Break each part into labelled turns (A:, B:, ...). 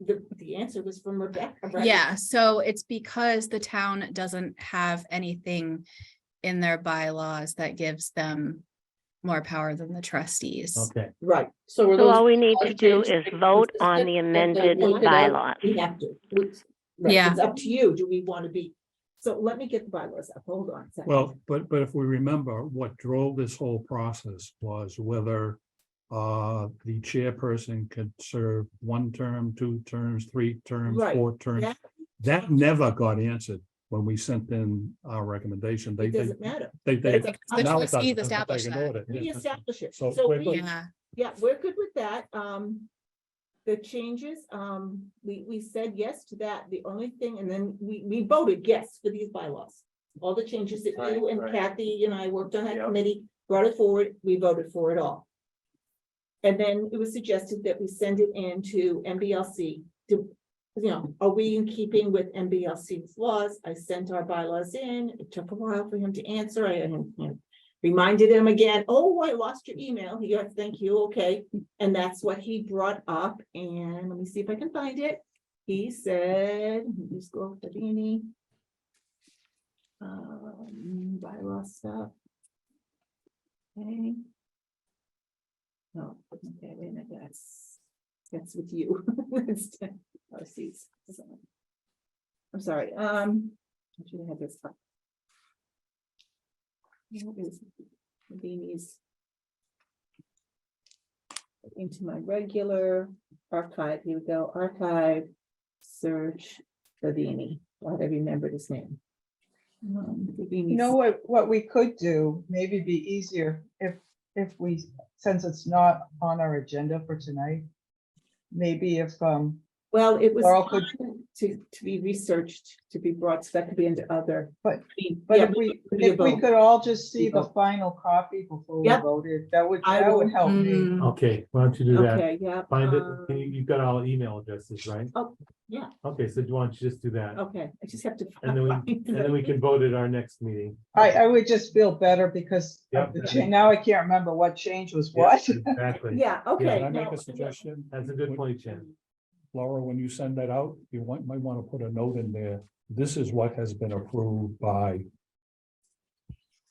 A: the, the answer was from Rebecca, right?
B: Yeah, so it's because the town doesn't have anything in their bylaws that gives them more power than the trustees.
C: Okay,
A: Right, so. are
D: So
A: those-
D: all we need to
A: are
D: do
A: changes
D: is vote
A: consistent
D: on the
A: and then
D: amended
A: look it up?
D: bylaws.
A: We have to. We- right,
B: Yeah.
A: It's up to you. Do we want to be? So let me get the bylaws up. Hold on. a second.
C: well, but, but if we remember, what drove this whole process was whether uh, the chairperson could serve one term, two terms, three terms,
A: Right.
C: four terms.
A: That-
C: That never got answered when we sent in our recommendation. They,
A: It
C: they,
A: doesn't matter.
C: they, they.
A: It's
B: The
C: now it
B: trustees
C: doesn't, that's what they
B: established that.
C: ignored it,
A: We
C: yeah.
A: establish it.
C: So
A: So
C: we're
A: we,
C: good.
B: Yeah,
A: yeah, we're good with that. Um, the changes, um, we, we said yes to that. The only thing, and then we, we voted yes for these bylaws. All the changes that
E: Right,
A: you and
E: right.
A: Kathy and I worked on that
E: Yep.
A: committee, brought it forward, we voted for it all. And then it was suggested that we send it in to MBLC to, you know, are we in keeping with MBLC's laws? I sent our bylaws in. It took a while for him to answer. I you know, reminded him again, oh, I lost your email. He goes, thank you, okay. And that's what he brought up. And let me see if I can find it. He said, let me scroll to Beanie. Um, bylaw stuff. Okay. No, okay, wait a minute, that's, that's with you. That's- oh, see, it's- it's on. I'm sorry, um, I should have had this. up. Where is Beanie's? Into my regular archive, here we go, archive, search, Beanie, glad I remembered his name. Um, Beanie's-
F: You know what, what we could do, maybe be easier if, if we, since it's not on our agenda for tonight. Maybe if, um,
A: Well, it was
F: Laurel could-
A: on to, to be researched, to be brought, so that could be into other.
F: But-
A: mean,
F: but
A: yeah,
F: if we,
A: could be a
F: if we
A: vote.
F: could all just see the
A: Vote.
F: final copy before we
A: Yep.
F: voted, that would,
A: I
F: that
A: will-
F: would help
C: Mm-hmm.
F: me.
B: Mm,
G: Okay, why don't you do that?
A: Okay, yeah.
G: Find it,
A: um,
G: you- you've got all email addresses, right?
A: Oh, yeah.
G: Okay, so do you want to just do that?
A: Okay, I just have to.
G: And then we-
A: find
G: And then we can vote at our next meeting.
F: I, I would just feel better because of
G: Yep.
F: the change, now I can't remember what change was what.
G: Yeah, Exactly.
A: Yeah, okay.
C: Can I make
A: no,
C: a suggestion?
G: That's a good
C: Would-
G: point, Jen.
C: Laura, when you send that out, you want, might want to put a note in there. This is what has been approved by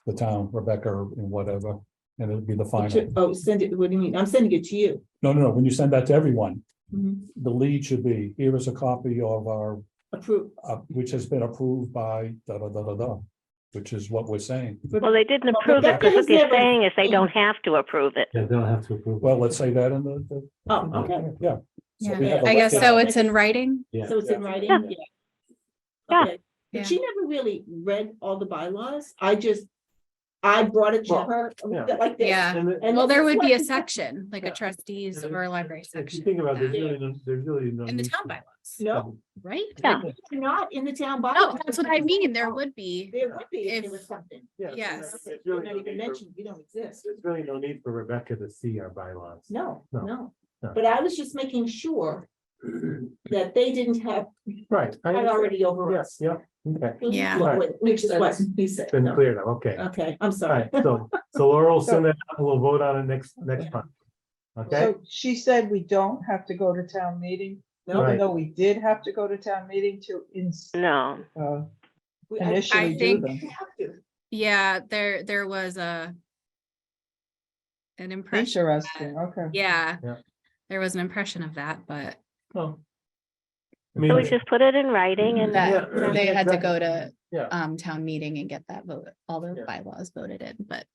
C: the town, Rebecca, and whatever, and it'll be the
A: yeah.
C: final.
A: Oh, send it, what do you mean? I'm sending it to you.
C: No, no, no, when you send that to everyone,
F: Mm-hmm.
A: Mhm.
C: the lead should be, here is a copy of our,
A: Approve.
C: uh, which has been approved by da, da, da, da, da, which is what we're saying.
D: Well, they didn't
A: Well,
D: approve it,
A: Rebecca
D: because
A: has
D: what they're
A: never-
D: saying is they don't have to approve it.
G: Yeah, they don't have to approve.
C: Well, let's say that in the, the-
A: Oh, okay.
C: yeah. So we
B: yeah.
C: have a
B: I guess
C: record.
B: so. It's in writing.
G: Yeah.
A: So it's in writing?
D: Yeah.
A: Yeah.
D: Yeah.
A: Okay.
B: Yeah.
A: But she never really read all the bylaws. I just, I brought it to
G: Well,
A: her
G: yeah.
A: like this.
B: Yeah.
G: And the-
A: And
B: Well,
A: this
B: there
A: is
B: would
A: what-
B: be a section, like a
G: Yeah.
B: trustees
G: and
B: or a library
G: If you
B: section
G: think about it, there's
B: Yeah.
G: really, no there's really no.
B: in the
G: need
B: town
G: to-
B: bylaws,
A: No,
B: right?
D: Yeah.
B: Like,
A: they're not in the town bylaws.
B: No, that's what I mean. There would be.
A: There would be if
B: If-
A: there was something.
G: Yeah, it's-
B: Yes.
G: it's
A: You're
G: really no
A: not even
G: need for-
A: mentioned, you don't exist.
G: There's really no need for Rebecca to see our bylaws.
A: No,
G: No,
A: no,
G: no.
A: but I was just making sure that they didn't have,
G: Right. I
A: had
G: understand.
A: already over us.
G: Yes, yeah, okay.
A: Which is
B: Yeah.
A: what- Which is what we said.
G: Been
A: no.
G: cleared, up, okay.
A: Okay, I'm
G: All
A: Uh, sorry.
G: right, so, so Laura will send that, out, we'll vote on it next, next month. Okay?
F: So she said we don't have to go to town meeting,
A: No,
G: Right.
F: even though we did have to go to town meeting to ins,
D: No,
F: uh,
A: we- I-
F: initially do
B: think-
F: them.
A: we have to.
B: Yeah, there, there was a an impression.
F: Interesting, okay.
B: Yeah.
G: Yeah.
B: There was an impression of that, but
A: Oh.
G: Well, I
D: so
G: mean,
D: we just put it in writing and
B: that
G: Yeah.
B: they had to go to
G: Yeah.
B: um town meeting and get that vote, all the
G: Yeah.
B: bylaws voted in, but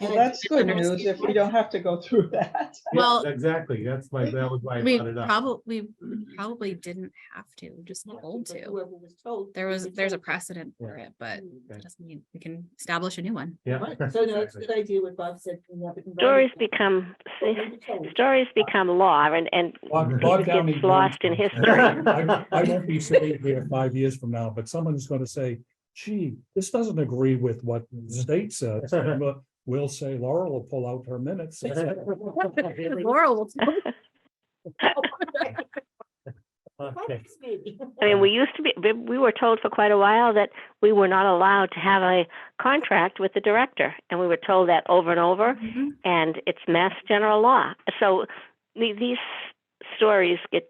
F: Well,
A: And
F: that's good
B: understand
F: news if
A: why.
F: we don't have to go through that.
B: well-
G: yeah, exactly, that's my, that was why I
B: we
G: brought it up.
B: probably,
G: Mm-hmm.
B: probably didn't have to, just
A: Yeah,
B: told
A: because
B: to.
A: whoever was told,
B: There
A: we
B: was,
A: were
B: there's a
A: told.
B: precedent for it, but
G: Okay.
B: that doesn't mean we can establish a new one.
G: Yeah.
A: Right, So no, it's a
G: exactly.
A: good idea what Bob said. we have it in
D: stories
A: writing.
D: become,
A: What we were told.
D: stories become law and, and
C: Bog-
G: It
C: bog
D: just
C: down
D: gets
C: these
D: lost
C: names.
D: in history.
C: I I won't be sitting here five years from now, but someone's gonna say, gee, this doesn't agree with what the state says. And we'll- We'll say Laurel will pull out her minutes.
B: Laurel will tell
G: Okay.
A: Perhaps maybe.
D: I mean, we used to be, we- we were told for quite a while that we were not allowed to have a contract with the director. And we were told that over and over,
B: Mhm.
D: and it's mass general law. So the- these stories get